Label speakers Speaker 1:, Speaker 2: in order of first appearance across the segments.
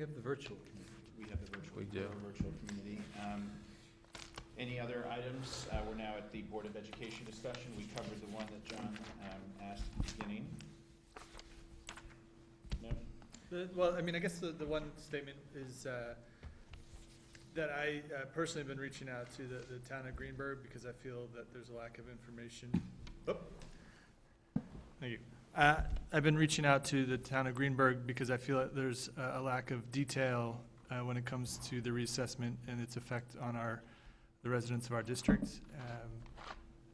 Speaker 1: have the virtual.
Speaker 2: Um, We have the virtual.
Speaker 3: We do.
Speaker 2: the Virtual community. Um, Any other items? Uh, We're now at the Board of Education discussion. We covered the one that John um, asked at the beginning. No?
Speaker 1: The- Well, I mean, I guess the, the one statement is uh, that I uh, personally have been reaching out to the, the town of Greenberg because I feel that there's a lack of information. Oh. Thank you. Uh, I've been reaching out to the town of Greenberg because I feel that there's a, a lack of detail uh, when it comes to the reassessment and its effect on our, the residents of our district. Um,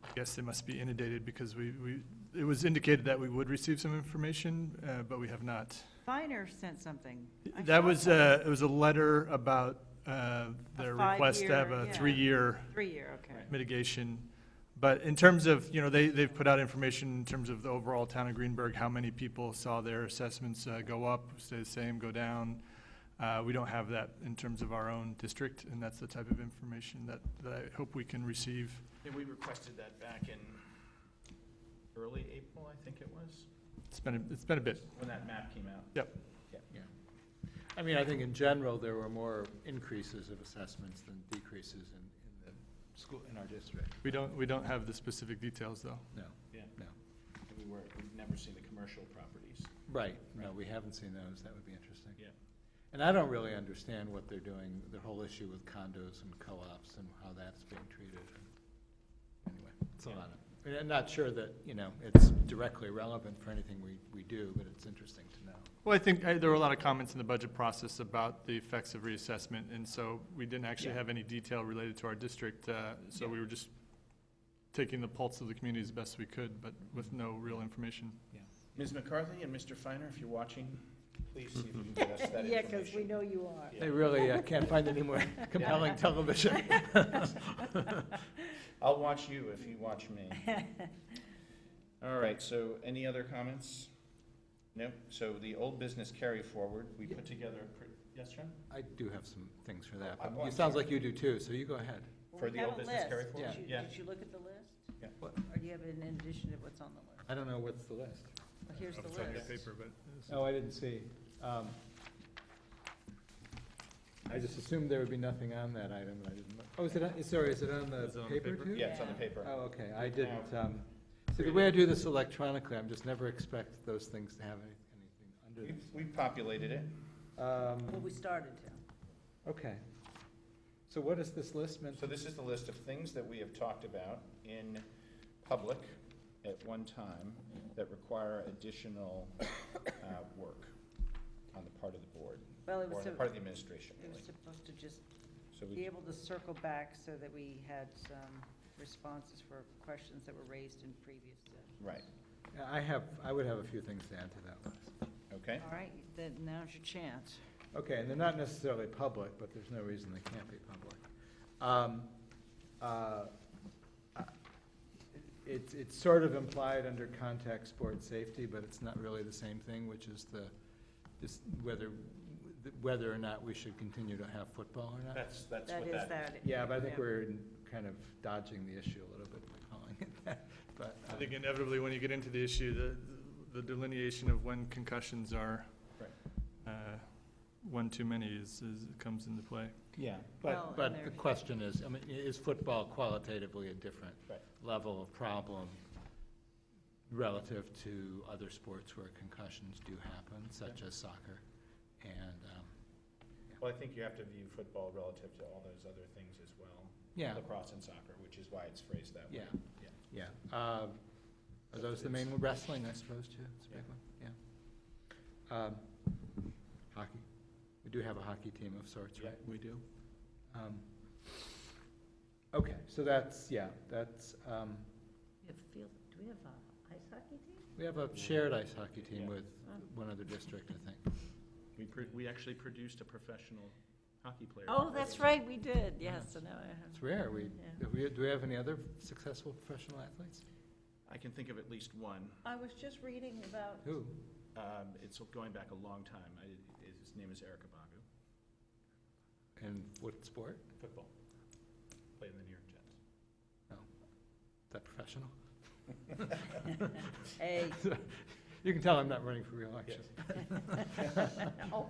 Speaker 1: I guess they must be inundated because we, we, it was indicated that we would receive some information, uh, but we have not.
Speaker 4: Finer sent something. I
Speaker 1: That
Speaker 4: saw
Speaker 1: was,
Speaker 4: something.
Speaker 1: uh, it was a letter about, uh, their request to have
Speaker 4: five-year,
Speaker 1: a
Speaker 4: yeah.
Speaker 3: uh,
Speaker 1: three-year
Speaker 4: Three-year, okay.
Speaker 2: Right.
Speaker 1: mitigation. But in terms of, you know, they, they've put out information in terms of the overall town of Greenberg, how many people saw their assessments, uh, go up, stay the same, go down. Uh, we don't have that in terms of our own district, and that's the type of information that, that I hope we can receive.
Speaker 2: And we requested that back in early April, I think it was,
Speaker 1: It's been, a- it's been a bit.
Speaker 2: when that map came out.
Speaker 1: Yep.
Speaker 3: Yeah. I mean, I think in general, there were more increases of assessments than decreases in, in the school, in our district.
Speaker 1: We don't, we don't have the specific details, though.
Speaker 3: No,
Speaker 2: Yeah,
Speaker 3: no.
Speaker 2: and we were, we've never seen the commercial properties.
Speaker 3: Right, no, we haven't seen those. That would be interesting.
Speaker 2: Yeah.
Speaker 3: And I don't really understand what they're doing, the whole issue with condos and co-ops and how that's being treated. Anyway, it's a
Speaker 2: Yeah.
Speaker 3: lot of, and I'm not sure that, you know, it's directly relevant for anything we, we do, but it's interesting to know.
Speaker 1: Well, I think uh, there were a lot of comments in the budget process about the effects of reassessment, and so we didn't actually
Speaker 2: Yeah.
Speaker 1: have any detail related to our district, uh, so
Speaker 2: Yeah.
Speaker 1: we were just taking the pulse of the community as best we could, but with no real information.
Speaker 2: Ms. McCarthy and Mr. Finer, if you're watching, please see if you can get us that information.
Speaker 5: Yeah, because we know you are.
Speaker 2: Yeah.
Speaker 3: They really uh, can't find any more compelling television.
Speaker 2: I'll watch you if you watch me. All right, so any other comments? Nope, so the old business carry forward, we put together, a pre- yes, John?
Speaker 3: I do have some things for that,
Speaker 2: Oh,
Speaker 3: but
Speaker 2: I'm
Speaker 3: it sounds like you do too, so you go ahead.
Speaker 2: For
Speaker 5: We
Speaker 2: the
Speaker 5: have
Speaker 2: old
Speaker 5: a
Speaker 2: business
Speaker 5: list.
Speaker 2: carry
Speaker 5: Did
Speaker 3: forward?
Speaker 5: you-
Speaker 2: Yeah.
Speaker 5: Did you look at the list?
Speaker 2: Yeah.
Speaker 3: What?
Speaker 5: Or do you have an addition of what's on the list?
Speaker 3: I don't know what's the list.
Speaker 5: Well, Here's the
Speaker 1: It's on your
Speaker 5: list.
Speaker 1: paper, but. uh,
Speaker 3: Oh, I didn't see. Um, I just assumed there would be nothing on that item, and I didn't, look. oh, is it, on- sorry, is it on the
Speaker 1: Is it on the
Speaker 3: paper
Speaker 1: paper?
Speaker 3: too?
Speaker 2: Yeah, it's on the paper.
Speaker 3: Oh, okay, I didn't, um, see, the way I do this electronically, I'm just never expect those things to have any-
Speaker 2: We-
Speaker 3: anything
Speaker 2: We populated it.
Speaker 3: under
Speaker 5: Well,
Speaker 3: them.
Speaker 5: we
Speaker 3: Um,
Speaker 5: started to.
Speaker 3: okay. So what is this list meant?
Speaker 2: So this is the list of things that we have talked about in public at one time that require additional uh, work on the part of the board,
Speaker 5: Well, it
Speaker 2: or on
Speaker 5: was,
Speaker 2: the
Speaker 5: so-
Speaker 2: part of the administration,
Speaker 5: it was
Speaker 2: really.
Speaker 5: supposed to just
Speaker 2: So we
Speaker 5: be able to circle back so that we had some responses for questions that were raised in previous sessions.
Speaker 2: Right,
Speaker 3: I have, I would have a few things to add to that list.
Speaker 2: okay.
Speaker 5: All right, then now's your chance.
Speaker 3: Okay, and they're not necessarily public, but there's no reason they can't be public. Um, uh, I- It's, it's sort of implied under contact sport safety, but it's not really the same thing, which is the, this, whether, whether or not we should continue to have football or not.
Speaker 2: That's, that's
Speaker 5: That
Speaker 2: what
Speaker 5: is
Speaker 2: that,
Speaker 5: that.
Speaker 3: Yeah, but I think we're kind of dodging the issue a little bit by calling it that, but.
Speaker 1: I
Speaker 3: uh,
Speaker 1: think inevitably, when you get into the issue, the, the delineation of when concussions are,
Speaker 2: Right.
Speaker 1: uh, one too many is, is, comes into play.
Speaker 3: Yeah,
Speaker 5: Well, and
Speaker 3: but, but the
Speaker 5: there's-
Speaker 3: question is, I mean, i- is football qualitatively a different
Speaker 2: Right.
Speaker 3: level of problem relative to other sports where concussions do happen, such as soccer? And, um,
Speaker 2: well, I think you have to view football relative to all those other things as well.
Speaker 3: yeah,
Speaker 2: Lacrosse and soccer, which is why it's phrased that way.
Speaker 3: yeah, yeah. Um, Are those the main, wrestling, I suppose, too? It's a big one, yeah. Um, Hockey, we do have a hockey team of sorts,
Speaker 2: Yeah.
Speaker 3: right? We do. Okay, so that's, yeah, that's, um,
Speaker 5: We have field, do we have a ice hockey team?
Speaker 3: We have a shared ice hockey team
Speaker 2: Yeah.
Speaker 3: with one other district, I think.
Speaker 2: We, pro- we actually produced a professional hockey player.
Speaker 5: Oh, that's right, we did, yes, so now I have.
Speaker 3: It's rare. We,
Speaker 5: Yeah.
Speaker 3: do we, do we have any other successful professional athletes?
Speaker 2: I can think of at least one.
Speaker 5: I was just reading about,
Speaker 3: Who?
Speaker 2: Um, it's going back a long time. I, his name is Eric Abagu.
Speaker 3: And what sport?
Speaker 2: Football. Played in the New York Jets.
Speaker 3: Is that professional?
Speaker 5: hey,
Speaker 3: You can tell I'm not running for reelection.
Speaker 5: oh,